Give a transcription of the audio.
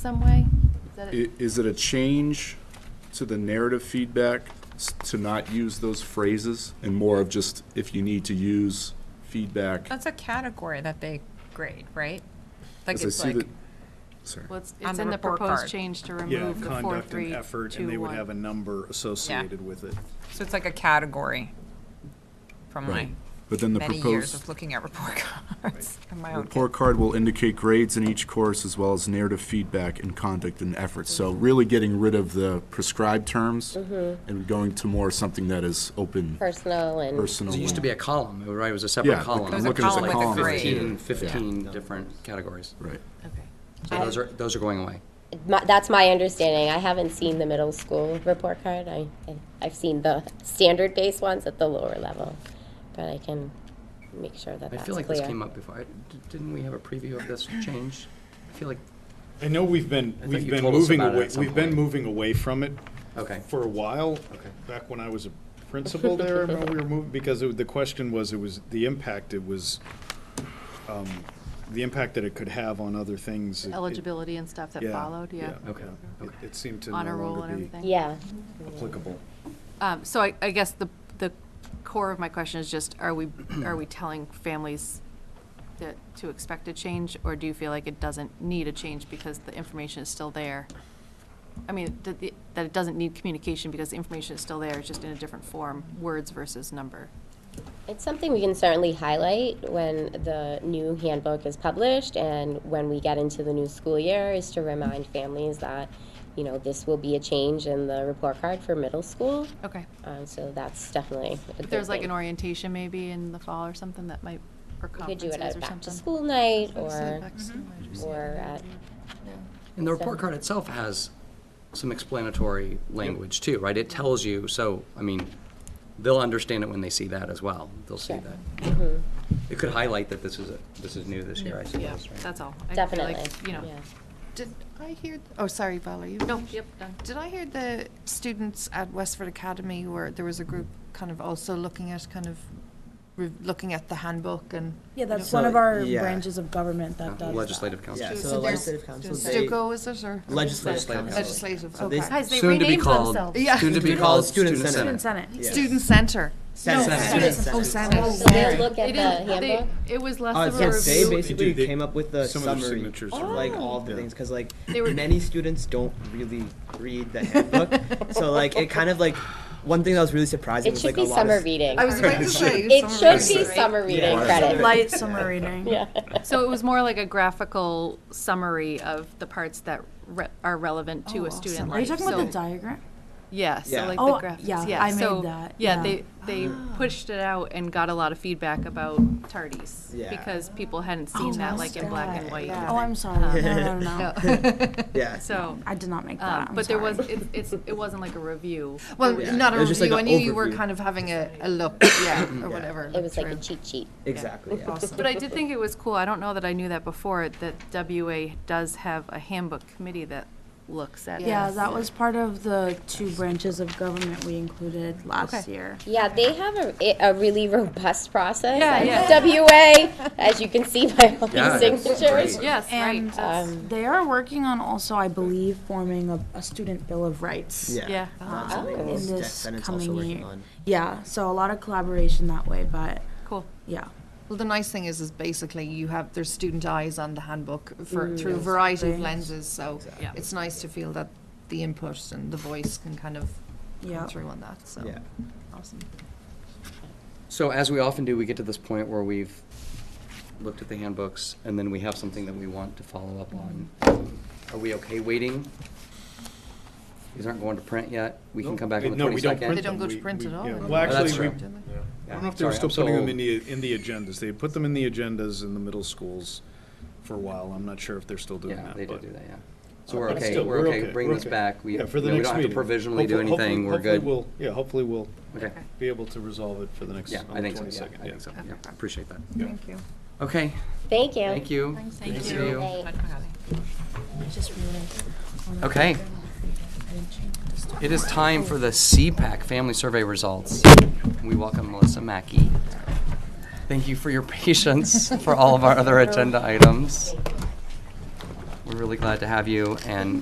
some way? Is that it? I- Is it a change to the narrative feedback s- to not use those phrases and more of just if you need to use feedback? That's a category that they grade, right? Like As I it's see like, that- Sorry. Well, it's, on it's the in the report proposed card. change to Yeah, remove the four, conduct and three, effort, and they two, would have a one. number associated with it. so it's like a category from my Right. But then the many years of proposed looking at report cards and my own. report card will indicate grades in each course as well as narrative feedback and conduct and effort. So Mm-hmm. really getting rid of the prescribed terms and going to more something that is open, Personal and. personal. It used to be a column, right? It was a Yeah, separate the- column. I'm There's a looking at the column with a column. grade. Fifteen, fifteen different categories. Right. So those are, those are going away. My, that's my understanding. I haven't seen the middle school report card. I, I I've seen the standard based ones at the lower level, but I can make sure that I that's feel like clear. this came up before. I- d- Didn't we have a preview of this change? I feel like, I know we've been, I think we've you been told us moving about it away, at some we've been point. moving away from it okay. for a while. Back when I was a principal there, I remember we were moving, because it- the question was, it was, the impact, it was, um, the impact that it could have on other things. it- it- Eligibility and stuff that yeah, followed, yeah. Okay, yeah. It- okay. It seemed to Honor no roll and longer be everything. Yeah. applicable. Um, so I, I guess the, the core of my question is just, are we, are we telling families that, to expect a change? Or do you feel like it doesn't need a change because the information is still there? I mean, that, the- that it doesn't need communication because the information is still there, it's just in a different form, words versus number. It's something we can certainly highlight when the new handbook is published and when we get into the new school year is to remind families that, you know, this will be a change in the report card for middle school. Okay. Um, so that's definitely a If there's good like thing. an orientation maybe in the fall or something that might, or You could do conferences it at or back to something. school night Or or, back to school might Mm-hmm. just- or at And the report card itself has some explanatory language too, right? It tells you, so, I mean, they'll understand it when they see that as well. They'll see Sure. that. It could highlight that this is, a- this is new this year, I Yeah, suppose, right? that's all. I feel like, Definitely. You know, yeah. Did I hear, oh, sorry, Val, are you? no, finished? yep, done. Did I hear the students at Westford Academy where there was a group kind of also looking at kind of, re- looking at the handbook and? Yeah, that's So, one of our yeah. branches of government Uh, that does. Legislative council. Yeah, So so there's- the legislative council, they, Stuco, is it, or? legislative uh, council. Legislative, So they- okay. Guys, they Soon to be renamed called- themselves. Yeah. Soon to be Student- called oh, Student Student Senate. Uh, Senate. Student Senate. Yes. Student center. Senate. No, Senate. students- Oh, Senate. Senate. So they look at It the is, handbook? they, it was less Uh, of a yes, they review. They basically do, they- came up with the some of their summary signatures of are- like all of the Yeah. things because like They were- many students don't really read the handbook, so like it kind of like one thing that was really surprising It was should like be a lot summer of reading. I was about to say. It summer should be reading. summer reading Yeah. credit. Light summer reading. Yeah. So it was more like a graphical summary of the parts that re- are relevant to Oh, a student awesome. life. Are you talking about So- the diagram? Yeah, so Yeah. like Oh, the graphics. yeah, I made so, that, Yeah, yeah. Ah. they they pushed it out and got a lot of feedback about tardies Yeah. because people hadn't seen that like in black and white. Oh, I'm sorry. No, no, no. Yeah. So, I did not make that. um, I'm but there was sorry. it, it's, it wasn't like a review. Well, Yeah. not a It was just like review, I an knew you were overview. kind of having a, a look, yeah, or whatever. It was like a through. cheat sheet. Exactly. yeah. But I did think it was cool. I don't know that I knew that before that WA does have a handbook committee that looks at. Yeah, this. that was part of the two branches of government we included last Okay. year. Yeah, they have a, a really robust process. Yeah, at yeah. WA, as you can see by all Yeah, these that's signatures. great. Yes, right. And that's- Um, They are working on also, I believe, forming a, a student bill of rights. yeah. um, Oh. in Yes, this Senate's also coming working year. on- Yeah, so a lot of collaboration that way, but Cool. yeah. Well, the nice thing is, is basically you have, there's student eyes on the handbook for, through a variety of lenses, so Yeah. it's nice to feel that the input and the voice can kind of Yeah. come through on that, so. Yeah. Awesome. So as we often do, we get to this point where we've looked at the handbooks, and then we have something that we want to follow up on. Are we okay waiting? These aren't going to print yet. We can come back on the No, we don't They print twenty-second. don't them. go to We- print we- at all, yeah. I Well, don't actually, we, think. I Don't they? don't know if they were still putting them in the, in the agendas. They put them in the agendas in the middle schools for a while. I'm not sure if they're still doing Yeah, that. they did but- do that, yeah. So we're But okay, still, we're okay, bring we're this okay. back. We, Yeah, you for the know, we next don't have to meeting. provisionally do Hopefully- hopefully- anything, we're hopefully good. we'll- Yeah, hopefully we'll Okay, be able to resolve it for the next, yeah, on the I think so, yeah, twenty-second. I think so, yeah, I appreciate that. Thank you. Okay, Thank you. thank you. Thank you. Okay. It is time for the CPAC Family Survey results. We welcome Melissa Mackey. Thank you for your patience for all of our other agenda items. We're really glad to have you, and